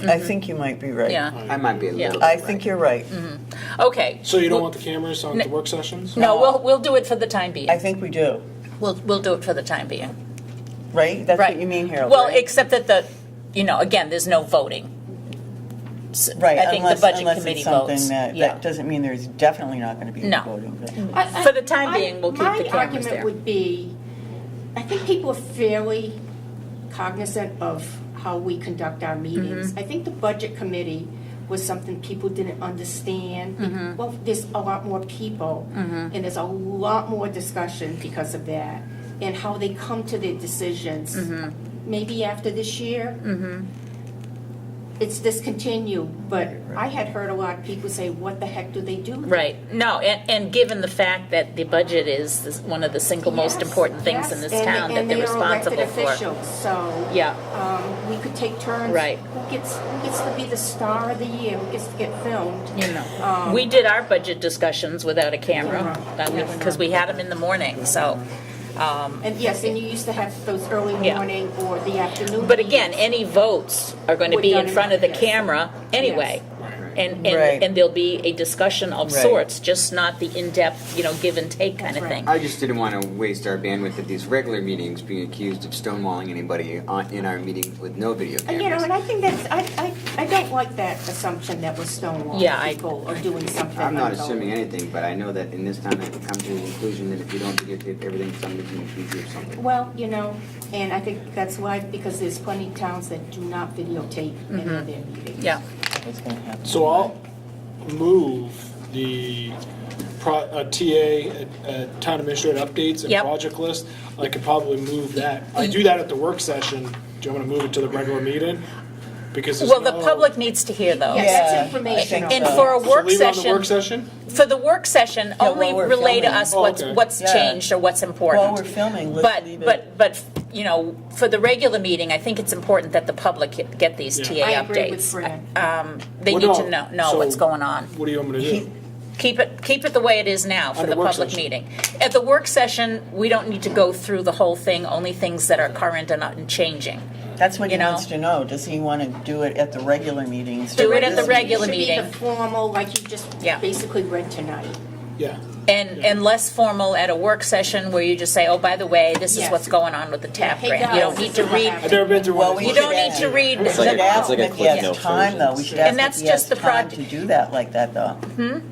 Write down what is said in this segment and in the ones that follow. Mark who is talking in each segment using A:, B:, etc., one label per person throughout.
A: I think you might be right.
B: Mm-hmm. Yeah. Mm-hmm.
C: I might be a
B: Yeah.
C: little bit
A: I think you're right.
B: Okay.
D: So you don't want the cameras on the work sessions?
B: No, we'll, we'll do it for the time being.
A: I think we do,
B: We'll, we'll do it for the time being.
A: right? That's
B: Right.
A: what you mean, Harold,
B: Well,
A: right?
B: except that the, you know, again, there's no voting. S-
A: Right,
B: I think the
A: unless-
B: budget
A: unless it's
B: committee
A: something
B: votes.
A: that-
B: Yeah.
A: That doesn't mean there's definitely not going to be
B: No.
A: voting. but-
B: For the time being, we'll keep the cameras
E: My argument
B: there.
E: would be, I think people are fairly cognizant of how we conduct our
B: Mm-hmm.
E: meetings. I think the budget committee was something people didn't
B: Mm-hmm.
E: understand. Well, there's a lot more people, and there's a lot more discussion because of that, and how they come to their decisions.
B: Mm-hmm.
E: Maybe after this year, it's discontinued, but I had heard a lot of people say, what the heck do they do?
B: Right. No, and, and given the fact that the budget is this- one of the single most
E: Yes,
B: important things in
E: yes,
B: this
E: and-
B: town that
E: and
B: they're
E: they are elected
B: responsible for.
E: officials, So.
B: Yeah,
E: Um, we could take turns.
B: Right.
E: Who gets, who gets to be the star of the year, who gets to get filmed?
B: you know.
E: Um,
B: We did our budget discussions without a camera,
E: Yes.
B: because we had them in the morning, so.
E: And yes, and you used to have those early
B: Yeah.
E: morning or the afternoon.
B: But again,
E: meetings.
B: any votes are going to
E: Were
B: be
E: done
B: in
E: in
B: front of the
E: yes.
B: camera anyway.
D: Right.
B: And,
A: Right.
B: and, and there'll be a discussion of
A: Right.
B: sorts, just not the in-depth, you know, give and take kind of
E: That's right.
B: thing.
C: I just didn't want to waste our bandwidth at these regular meetings being accused of stonewalling anybody on, in our meetings with no video cameras.
E: And, Uh, you know, and I think that's, I, I, I don't like that assumption that we're
B: Yeah, I-
E: stonewalling people or doing something.
C: I'm not
E: unvoted.
C: assuming anything, but I know that in this town I've come to the conclusion that if you don't videotape everything, somebody's going to accuse you of something.
E: Well, you know, and I think that's why, because there's plenty of towns that do not videotape any of their meetings.
B: Mm-hmm. Yeah,
A: It's gonna happen.
D: So I'll move the pro, uh, TA, uh, town administrator updates and
B: Yep.
D: project list. I could probably move that. I do that at the work session. Do you want me to move it to the regular meeting? Because oh, there's
B: well, the
D: no-
B: public needs to hear those.
E: Yes,
A: Yeah, I
E: that's
A: think
E: informational.
B: And for a
D: So
B: work
D: leave it on the work
B: session,
D: session?
B: for the work session,
A: while
B: only
A: we're
B: relay to
A: filming.
B: us
D: Oh,
B: what's,
D: okay.
B: what's
A: Yeah.
B: changed or what's important.
A: While we're filming, let's
B: But,
A: leave it-
B: but, but, you know, for the regular meeting, I think it's important that the public get these TA
D: Yeah.
B: updates.
E: I agree with Fran.
B: They
D: Well,
B: need
D: no,
B: to know, know
D: so-
B: what's going on.
D: What do you want me to
A: He-
D: do?
B: Keep it, keep it the way it is now for
D: At
B: the
D: a work
B: public
D: session.
B: meeting. At the work session, we don't need to go through the whole thing, only things that are current and not and changing.
A: That's what
B: you
A: he
B: know?
A: wants to know. Does he want to do it at the regular meetings?
B: Do it
A: This
B: at the
A: meeting?
B: regular
E: It should be
B: meeting.
E: the formal, like you just
B: Yeah.
E: basically read tonight.
D: Yeah.
B: And, and less formal at a work session where you just say, oh, by the way, this is
E: Yes.
B: what's going on with the TAP
E: Hey,
B: grant. You
E: guys,
B: don't need
E: this
B: to
E: is what
B: read,
E: happened.
D: I've never been through one
A: Well,
D: of
A: we
D: those.
B: you don't
A: should
B: need to
A: ask-
B: read.
A: We should ask
F: like
A: him
F: a
A: if he
F: click note
A: has time,
F: version.
A: though. We should
B: And
A: ask him if
B: that's
A: he
B: just
A: has
B: the Mm-hmm.
A: time
B: proj-
A: to do that like that, though.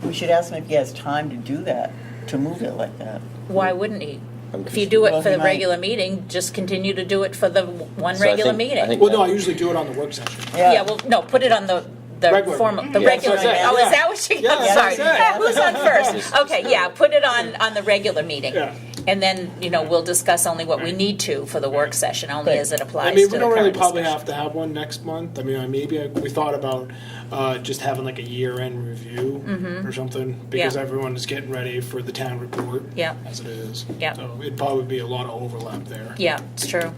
A: We should ask him if he has time to do that, to move it like that.
B: Why wouldn't he?
F: I'm
B: If you do it
A: Well,
B: for
A: he
B: the
A: might.
B: regular meeting, just continue to do it for the w- one
F: So I
B: regular
F: think- I
B: meeting.
F: think-
D: Well, no, I usually do it on the work session.
B: Yeah, well, no, put it on the, the
D: Regular.
B: formal, the
F: Yeah.
B: regular,
D: That's what I
B: meeting.
D: said,
B: oh, is
D: yeah.
B: that what she,
D: Yeah,
B: I'm
D: that's
B: sorry.
D: what I said.
B: Who's on first? Okay, yeah, put it on, on the regular meeting.
D: Yeah.
B: And then, you know, we'll discuss only what we need to for the work session, only as it
D: I
B: applies to
D: mean,
B: the
D: we don't really
B: current
D: probably
B: discussion.
D: have to have one next month. I mean, I- maybe I- we thought about uh, just having like a year-end review or something because
B: Mm-hmm. Yeah.
D: everyone is getting ready for the town report.
B: Yeah.
D: As it is.
B: Yeah.
D: So it'd probably be a lot of overlap there.
B: Yeah, it's true.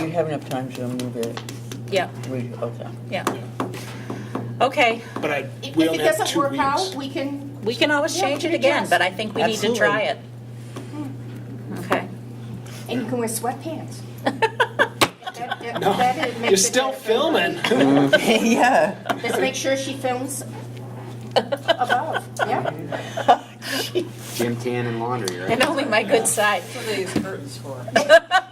A: We have enough time to move it.
B: Yeah,
A: We, okay.
B: yeah. Okay,
D: But I,
E: If
D: we
E: if
D: only
E: it
D: have
E: doesn't
D: two
E: work out,
D: weeks.
E: we can,
B: we can always
E: Yeah,
B: change
E: we
B: it
E: can
B: again,
E: adjust.
B: but I think we need to
A: Absolutely.
B: try it. Okay.
E: and you can wear sweatpants. That- that-
D: No,
E: that is- makes
D: You're
E: it
D: still
E: better.
D: filming.
A: Yeah.
E: Let's make sure she films above, yeah.
C: Jim Tan and laundry, right?
B: And only my good side.
A: That's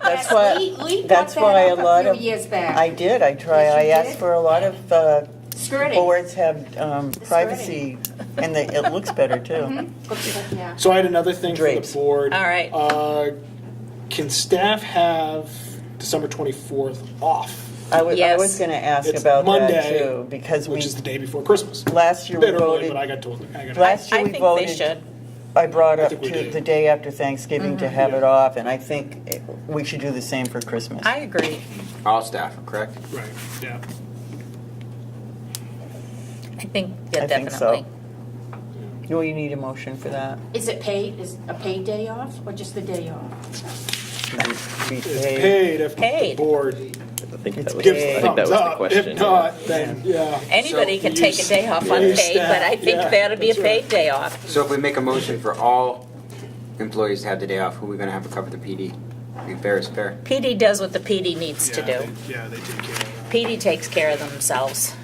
E: Yes,
A: why-
E: Lee- Lee brought
A: that's
E: that
A: why
E: up
A: a lot
E: few
A: of-
E: Years back.
A: I did, I try,
E: Yes,
A: I
E: you
A: asked
E: did.
A: for a lot of, uh,
E: Skirting.
A: boards have um, privacy, and they- it looks better, too.
E: Mm-hmm. Yeah.
D: So I had another thing for
A: Drapes.
D: the board.
B: All right.
D: Uh, Can staff have December 24th off?
A: I was, I was
B: Yes.
A: gonna ask
D: It's
A: about that,
D: Monday,
A: too, because we,
D: Which is the day before Christmas.
A: last year we
D: Bit early,
A: voted,
D: but I got told, I got.
A: last year
B: I
A: we
B: think
A: voted.
B: they should.
A: I brought
D: I
A: up
D: think we
A: to
D: did.
A: the day after Thanksgiving
E: Mm-hmm.
A: to have it off, and I think it- we should do the same for Christmas.
B: I agree.
C: All staff, correct?
D: Right, yeah.
B: I think, yeah,
A: I think so.
B: definitely.
A: Do you need a motion for that?
E: Is it paid, is a paid day off or just the day off?
A: Should we- we
D: It's
A: pay-
D: paid if the
B: Paid.
D: board
F: I think
A: It's
F: that was,
A: big.
F: I
D: gives the
F: think that
D: thumbs
F: was the
D: up.
F: question.
D: If
F: yeah.
D: not, then, yeah.
B: Anybody
C: So
B: can
D: you
B: take a
D: s-
B: day off
D: yeah,
B: on
D: you
B: paid, but I
D: staff,
B: think
D: yeah,
B: that'll be a
D: that's right.
B: paid day off.
C: So if we make a motion for all employees to have the day off, who are we going to have to cover the PD? Be fair is fair.
B: PD does what the PD needs to
D: Yeah,
B: do.
D: they- Yeah, they take care of
B: PD takes care of themselves.